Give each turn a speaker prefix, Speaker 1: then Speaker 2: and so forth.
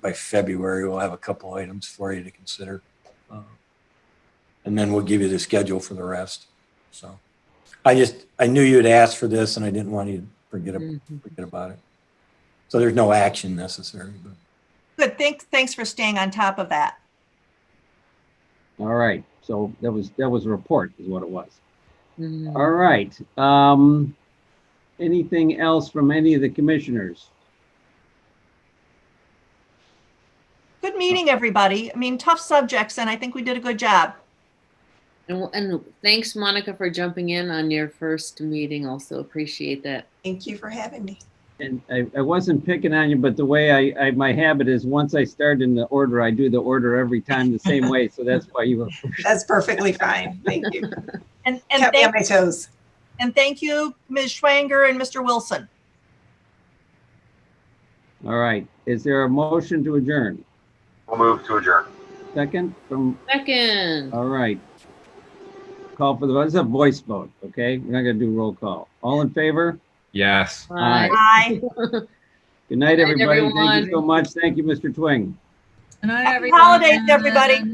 Speaker 1: by February, we'll have a couple items for you to consider. Uh, And then we'll give you the schedule for the rest. So I just, I knew you'd asked for this and I didn't want you to forget, ab-
Speaker 2: Mhm.
Speaker 1: forget about it. So there's no action necessary, but.
Speaker 3: Good, thanks, thanks for staying on top of that.
Speaker 4: All right, so that was, that was a report is what it was.
Speaker 2: Mhm.
Speaker 4: All right, um, anything else from any of the commissioners?
Speaker 3: Good meeting, everybody. I mean, tough subjects, and I think we did a good job.
Speaker 2: And, and thanks, Monica, for jumping in on your first meeting. Also appreciate that.
Speaker 5: Thank you for having me.
Speaker 4: And I, I wasn't picking on you, but the way I, I, my habit is once I start in the order, I do the order every time the same way, so that's why you were.
Speaker 5: That's perfectly fine. Thank you.
Speaker 3: And, and
Speaker 5: Kept me on
Speaker 3: thank,
Speaker 5: my toes.
Speaker 3: and thank you, Ms. Schwanger and Mr. Wilson.
Speaker 4: All right, is there a motion to adjourn?
Speaker 6: We'll move to adjourn.
Speaker 4: Second from,
Speaker 2: Second.
Speaker 4: all right. Call for the, vote. It's a voice vote, okay? We're not gonna do roll call. All in favor?
Speaker 7: Yes.
Speaker 2: Bye.
Speaker 3: Bye.
Speaker 4: Good night,
Speaker 2: Good night,
Speaker 4: everybody. Thank
Speaker 2: everyone.
Speaker 4: you so much. Thank you, Mr. Twing.
Speaker 8: Good night,
Speaker 3: Happy
Speaker 8: everyone.
Speaker 3: holidays, everybody.